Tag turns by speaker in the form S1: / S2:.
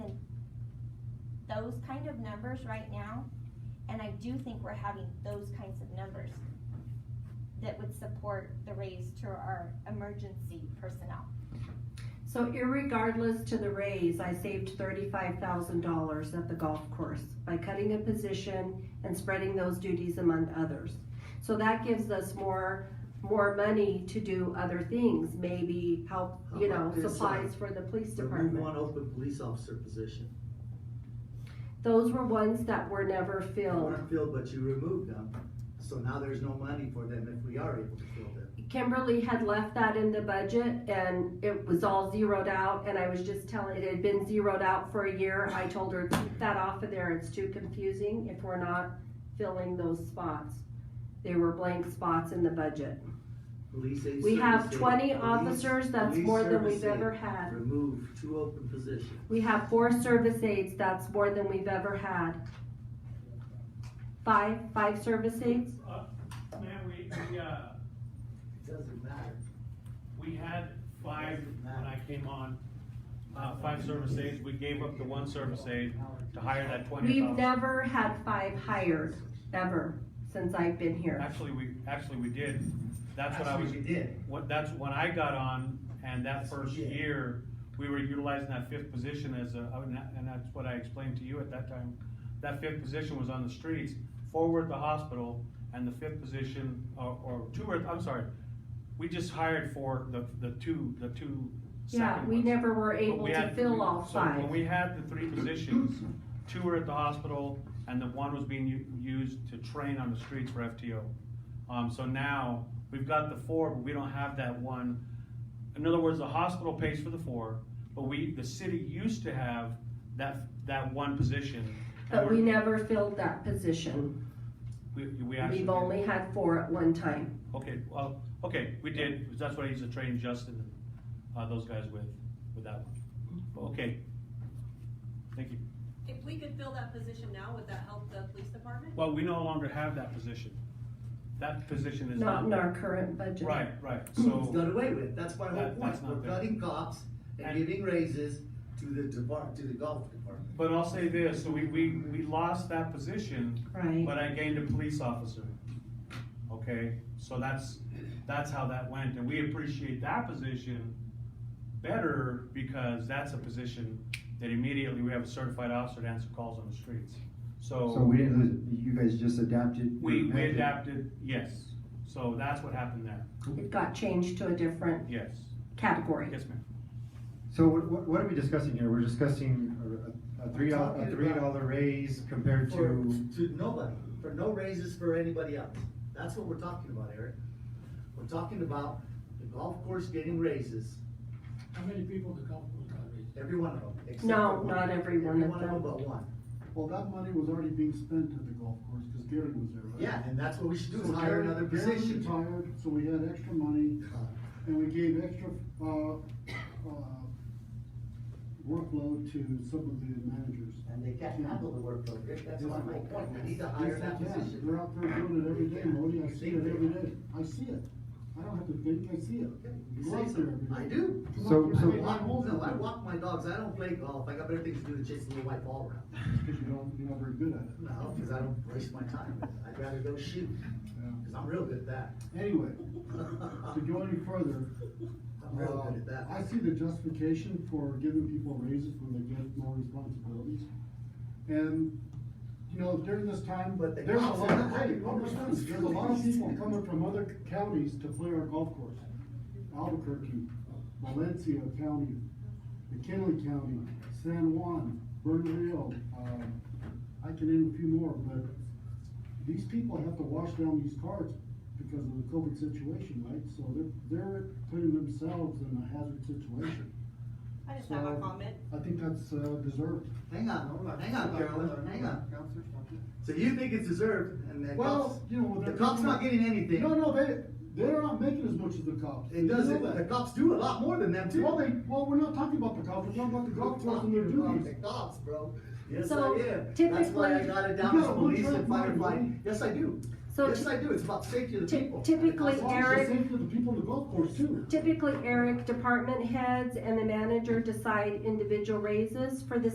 S1: those kind of numbers right now, and I do think we're having those kinds of numbers that would support the raise to our emergency personnel.
S2: So irregardless to the raise, I saved thirty-five thousand dollars at the golf course by cutting a position and spreading those duties among others. So that gives us more, more money to do other things, maybe help, you
S3: How
S2: know,
S3: about this, uh,
S2: supplies for the police
S3: Remove
S2: department.
S3: one open police officer position.
S2: Those were ones that were never
S3: They
S2: filled.
S3: weren't filled, but you removed them, so now there's no money for them if we are able to fill them.
S2: Kimberly had left that in the budget and it was all zeroed out and I was just telling, it had been zeroed out for a year. I told her, keep that off of there, it's too confusing if we're not filling those spots. They were blank spots in the budget.
S3: Police aid
S2: We have
S3: service aid,
S2: twenty
S3: police-
S2: officers, that's
S3: police
S2: more than
S3: service
S2: we've
S3: aid.
S2: ever had.
S3: Remove two open positions.
S2: We have four service aides, that's more than we've ever had. Five, five service aides?
S4: Uh, Man, we, we, uh,
S3: It doesn't matter.
S4: we had five when I came on, uh, five service aides, we gave up the one service aide to hire that twenty
S2: We've
S4: thousand.
S2: never had five hired, ever, since I've been here.
S4: Actually, we, actually, we did, that's what I
S3: That's
S4: was,
S3: you did.
S4: what, that's when I got on, and that
S3: That's what
S4: first
S3: you did.
S4: year, we were utilizing that fifth position as a, and that- and that's what I explained to you at that time. That fifth position was on the streets, forward the hospital, and the fifth position, or, or two, or, I'm sorry, we just hired for the, the two, the two
S2: Yeah,
S4: second
S2: we
S4: ones.
S2: never were
S4: But
S2: able
S4: we
S2: to
S4: had-
S2: fill all
S4: so When
S2: five.
S4: we had the three positions, two were at the hospital, and the one was being u- used to train on the streets for FTO. Um, so now, we've got the four, but we don't have that one. In other words, the hospital pays for the four, but we, the city used to have that, that one position. and
S2: But we
S4: we're-
S2: never filled that position.
S4: We, we actually.
S2: We've
S4: did.
S2: only had four at one time.
S4: Okay, well, okay, we did, 'cause that's what I used to train Justin and, uh, those guys with, with that one. Okay. Thank you.
S5: If we could fill that position now, would that help the police department?
S4: Well, we no longer have that position. That position is
S2: Not
S4: not.
S2: in our current budget.
S4: Right, right,
S3: It's
S4: so,
S3: done away with, that's my whole
S4: That- that's
S3: point,
S4: not
S3: we're
S4: there.
S3: cutting cops and
S4: And-
S3: giving raises to the depart, to the golf department.
S4: but I'll say this, so we, we, we lost that position,
S2: Right.
S4: but I gained a police officer. Okay, so that's, that's how that went, and we appreciate that position better because that's a position that immediately we have a certified officer to answer calls on the streets.
S6: So we didn't lose it, you guys just adapted?
S4: We, we adapted, yes, so that's what happened there,
S2: It got changed to a different
S4: yes,
S2: category.
S4: yes, ma'am.
S6: So what, what- what are we discussing here? We're discussing a- a, a three, doll- a
S3: Talking
S6: three
S3: about-
S6: dollar raise compared
S3: For,
S6: to,
S3: to nobody, for no raises for anybody else, that's what we're talking about, Eric. We're talking about the golf course getting raises,
S7: How many people the golf course got raised?
S3: every one of them, except
S2: No,
S3: for one.
S2: not every one of
S3: Every one
S2: them.
S3: of them but one.
S8: Well, that money was already being spent at the golf course, because Gary was there, right?
S3: Yeah, and that's what we should do, is
S8: So
S3: hire
S8: Gary-
S3: another
S8: Gary
S3: position.
S8: retired, so we had extra money, and we gave extra, uh, uh, workload to some of the managers.
S3: And they can't handle the workload, Rick, that's my whole point, we need to hire
S8: Yes,
S3: that
S8: they can.
S3: position.
S8: They're out there doing it every day, Modi, I see
S3: They
S8: it
S3: can.
S8: every day, I see it, I don't have to think, I see it.
S3: You
S8: Go
S3: say
S8: out
S3: so.
S8: there every day.
S3: I do.
S8: Come
S6: So-
S8: on,
S3: I
S6: so-
S8: you
S3: walk,
S8: can't hold
S3: no, I
S8: it.
S3: walk my dogs, I don't play golf, I got better things to do than chase a little white ball around.
S8: Because you don't, you're not very good at it.
S3: No, cause I don't waste my time, I'd rather go shoot, cause I'm real good at that.
S8: Anyway, to
S3: I'm
S8: go any further,
S3: real
S8: Uh,
S3: good at that.
S8: I see the justification for giving people raises when they get more responsibilities. And, you know, during this time,
S3: But they-
S8: there's a lot of, hey, hold on, there's a lot of people coming from other counties to play our golf course. Albuquerque, Valencia County, McKinley County, San Juan, Bernalillo, um, I can name a few more, but these people have to wash down these cards because of the COVID situation, right? So they're, they're putting themselves in a hazard situation.
S5: I just have a
S8: So-
S5: comment.
S8: I think that's, uh, deserved.
S3: Hang on, hang on, Carolyn, hang on.
S8: Counselor, something?
S3: So you think it's deserved and the cops,
S8: Well, you know,
S3: the
S8: they're.
S3: cops not getting anything.
S8: No, no, they, they're not making as much as the cops.
S3: It
S8: You know
S3: doesn't,
S8: that.
S3: the cops do a lot more than them too.
S8: Well, they, well, we're not talking about the cops, we're talking about the golf course and their
S3: The
S8: duties.
S3: cops, bro. Yes,
S2: So,
S3: I am. That's why I
S2: typically-
S3: got it down as
S8: No,
S3: police
S8: we're
S3: and
S8: trying to-
S3: firefighting. Yes, I do.
S2: So
S3: Yes,
S2: ty-
S3: I do. It's about safety of the
S2: ty-
S3: people.
S2: typically,
S8: It's also
S2: Eric-
S8: safe for the people in the golf course too.
S2: Typically, Eric, department heads and the manager decide individual raises for the